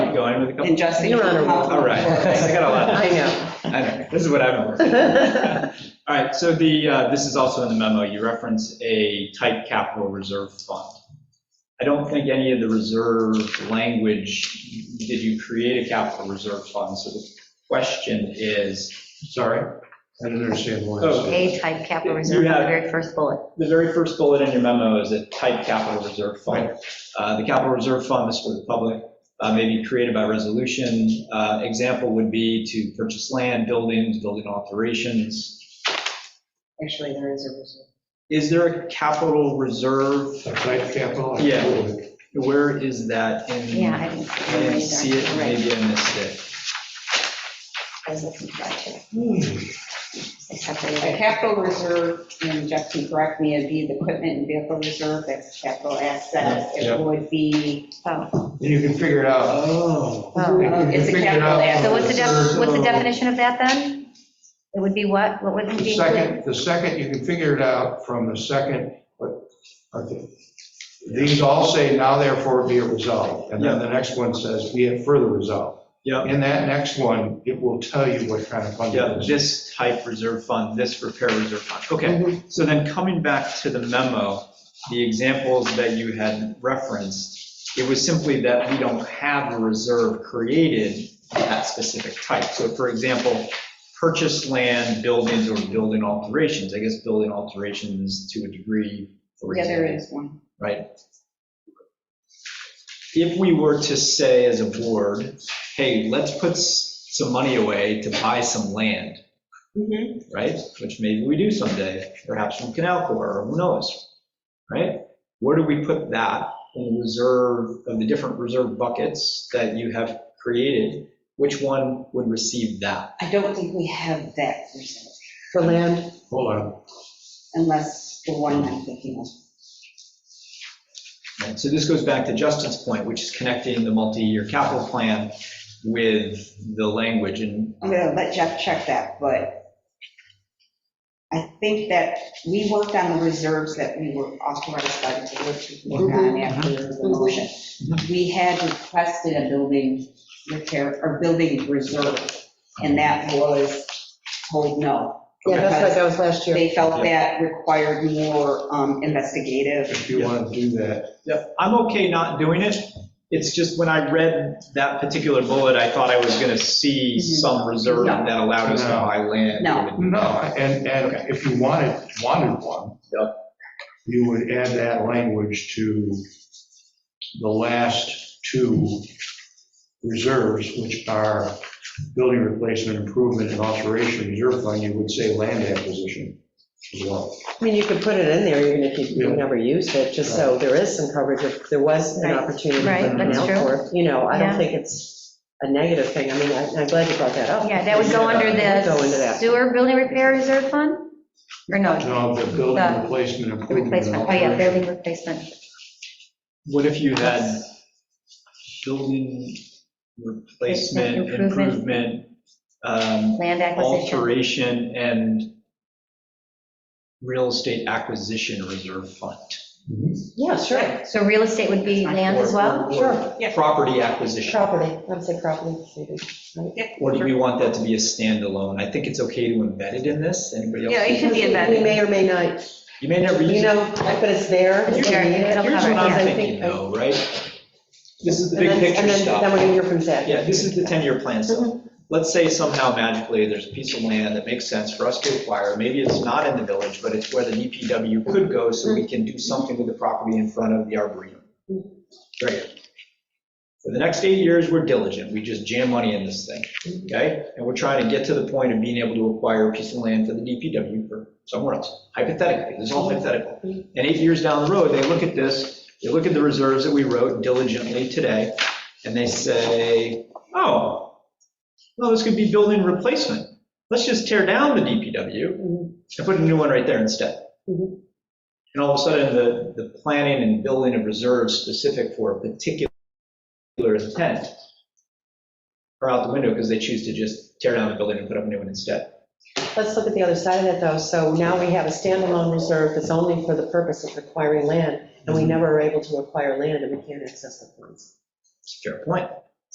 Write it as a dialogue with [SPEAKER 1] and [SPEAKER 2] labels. [SPEAKER 1] keep going with a couple.
[SPEAKER 2] And Justin.
[SPEAKER 3] You're on a roll.
[SPEAKER 1] All right, I got a lot.
[SPEAKER 3] I know.
[SPEAKER 1] I know, this is what I've been working on. All right, so the, uh, this is also in the memo, you reference a type capital reserve fund. I don't think any of the reserve language, did you create a capital reserve fund? So the question is,
[SPEAKER 4] Sorry, I didn't understand why.
[SPEAKER 1] Oh.
[SPEAKER 5] A type capital
[SPEAKER 1] You
[SPEAKER 5] reserve, the
[SPEAKER 1] have-
[SPEAKER 5] very first bullet.
[SPEAKER 1] the very first bullet in your memo is a type capital reserve fund. Uh, The capital reserve fund is for the public, uh, may be created by resolution. Uh, Example would be to purchase land, buildings, building alterations.
[SPEAKER 3] Actually, there is a reserve.
[SPEAKER 1] Is there a capital reserve
[SPEAKER 4] A type capital? I
[SPEAKER 1] Yeah.
[SPEAKER 4] totally-
[SPEAKER 1] Where is that in?
[SPEAKER 5] Yeah, I didn't
[SPEAKER 1] I
[SPEAKER 5] see
[SPEAKER 1] didn't see
[SPEAKER 5] it
[SPEAKER 1] it,
[SPEAKER 5] either. Right,
[SPEAKER 1] maybe I missed it.
[SPEAKER 5] I was looking for that too.
[SPEAKER 4] Hmm.
[SPEAKER 5] I separated
[SPEAKER 2] A
[SPEAKER 5] it.
[SPEAKER 2] capital reserve, and Justin, correct me, it'd be the equipment and vehicle reserve, that's capital assets.
[SPEAKER 4] Yeah.
[SPEAKER 2] It would be,
[SPEAKER 5] Oh,
[SPEAKER 4] And you can figure it out. Oh.
[SPEAKER 5] Oh.
[SPEAKER 4] You can
[SPEAKER 2] It's a
[SPEAKER 4] figure it
[SPEAKER 2] capital
[SPEAKER 4] out.
[SPEAKER 2] asset.
[SPEAKER 5] So what's the, def- what's the
[SPEAKER 4] So-
[SPEAKER 5] definition of that then? It would be what? What would it
[SPEAKER 4] The
[SPEAKER 5] be? included?
[SPEAKER 4] second, the second, you can figure it out from the second, but, okay. These all say now therefore be it resolved, and then the next one says be it further resolved.
[SPEAKER 1] Yep,
[SPEAKER 4] In that next one, it will tell you what kind of fund
[SPEAKER 1] yep,
[SPEAKER 4] it is.
[SPEAKER 1] this type reserve fund, this repair reserve fund. Okay, so then coming back to the memo, the examples that you had referenced, it was simply that we don't have a reserve created for that specific type. So for example, purchase land, buildings, or building alterations. I guess building alterations to a degree, for
[SPEAKER 2] yeah,
[SPEAKER 1] example.
[SPEAKER 2] there is one.
[SPEAKER 1] right? If we were to say as a board, hey, let's put s- some money away to buy some land,
[SPEAKER 2] Mhm.
[SPEAKER 1] right? Which maybe we do someday, perhaps from Canal Corps, or who knows, right? Where do we put that in the reserve, of the different reserve buckets that you have created? Which one would receive that?
[SPEAKER 2] I don't think we have that reserve,
[SPEAKER 3] For land,
[SPEAKER 4] Hold on,
[SPEAKER 2] unless the one I'm thinking of.
[SPEAKER 1] Right, So this goes back to Justin's point, which is connecting the multi-year capital plan with the language and um,
[SPEAKER 2] I'm
[SPEAKER 3] Um,
[SPEAKER 2] gonna let Jeff check that, but I think that we worked on the reserves that we were authorized by the board to work on
[SPEAKER 3] Mm-hmm.
[SPEAKER 2] after the motion. We had requested a building repair, or building reserve, and that was told no.
[SPEAKER 3] yeah, that's like
[SPEAKER 2] because
[SPEAKER 3] I was last year.
[SPEAKER 2] They felt that required more um, investigative.
[SPEAKER 4] if you want to do that.
[SPEAKER 1] Yep, I'm okay not doing it. It's just when I read that particular bullet, I thought I was going to see some reserve
[SPEAKER 2] No.
[SPEAKER 1] that allowed us to
[SPEAKER 4] No.
[SPEAKER 1] buy land.
[SPEAKER 2] No.
[SPEAKER 4] No, and, and if you wanted, wanted one,
[SPEAKER 1] Yep.
[SPEAKER 4] you would add that language to the last two reserves, which are building replacement improvement and alteration reserve fund, you would say land acquisition as well.
[SPEAKER 3] I mean, you could put it in there even if you you never used it, just so there is some coverage if there was an
[SPEAKER 5] Right.
[SPEAKER 3] opportunity.
[SPEAKER 5] Right,
[SPEAKER 3] for an
[SPEAKER 5] that's true.
[SPEAKER 3] outdoor. You know, I
[SPEAKER 5] Yeah.
[SPEAKER 3] don't think it's a negative thing. I mean, I- I'm glad you brought that up.
[SPEAKER 5] Yeah, that would go under
[SPEAKER 3] Go into
[SPEAKER 5] the
[SPEAKER 3] that.
[SPEAKER 5] sewer building repair reserve fund? Or no,
[SPEAKER 4] No, the building
[SPEAKER 5] The-
[SPEAKER 4] replacement
[SPEAKER 5] the
[SPEAKER 4] improvement. and
[SPEAKER 5] replacement, oh yeah,
[SPEAKER 4] alteration.
[SPEAKER 5] building replacement.
[SPEAKER 1] What if you had building replacement,
[SPEAKER 5] Improvement.
[SPEAKER 1] improvement, um,
[SPEAKER 5] Land acquisition.
[SPEAKER 1] alteration, and real estate acquisition reserve fund?
[SPEAKER 4] Mm-hmm.
[SPEAKER 3] Yeah, sure,
[SPEAKER 5] So real estate would be land as well?
[SPEAKER 1] Or- or
[SPEAKER 3] sure.
[SPEAKER 2] Yeah.
[SPEAKER 1] Property acquisition,
[SPEAKER 3] Property, I would say property, maybe.
[SPEAKER 1] or do we want that to be a standalone? I think it's okay to embed it in this, anybody else?
[SPEAKER 2] Yeah, it could be
[SPEAKER 3] We
[SPEAKER 2] embedded.
[SPEAKER 3] may or may not,
[SPEAKER 1] You may never use it.
[SPEAKER 3] you know, but it's there.
[SPEAKER 5] It's there, it'll
[SPEAKER 1] Here's what
[SPEAKER 5] Yeah,
[SPEAKER 1] I'm
[SPEAKER 5] I
[SPEAKER 1] thinking though, right? This is the
[SPEAKER 3] And
[SPEAKER 1] big
[SPEAKER 3] then-
[SPEAKER 1] picture
[SPEAKER 3] And then, then we're
[SPEAKER 1] stuff.
[SPEAKER 3] gonna hear from Zach.
[SPEAKER 1] Yeah, this is the 10-year plan stuff. Let's say somehow magically, there's a piece of land that makes sense for us to acquire. Maybe it's not in the village, but it's where the DPW could go, so we can do something with the property in front of the arboretum. Great. For the next eight years, we're diligent. We just jam money in this thing, okay? And we're trying to get to the point of being able to acquire a piece of land for the DPW for somewhere else, hypothetically. This is all hypothetical. And eight years down the road, they look at this, they look at the reserves that we wrote diligently today, and they say, oh, well, this could be building replacement. Let's just tear down the DPW
[SPEAKER 3] Mhm.
[SPEAKER 1] and put a new one right there instead.
[SPEAKER 3] Mhm.
[SPEAKER 1] And all of a sudden, the, the planning and building of reserves specific for a particular intent are out the window because they choose to just tear down the building and put up a new one instead.
[SPEAKER 3] Let's look at the other side of that, though. So now we have a standalone reserve that's only for the purpose of acquiring land, and we never are able to acquire land, and we can't access the funds.
[SPEAKER 1] It's a fair point.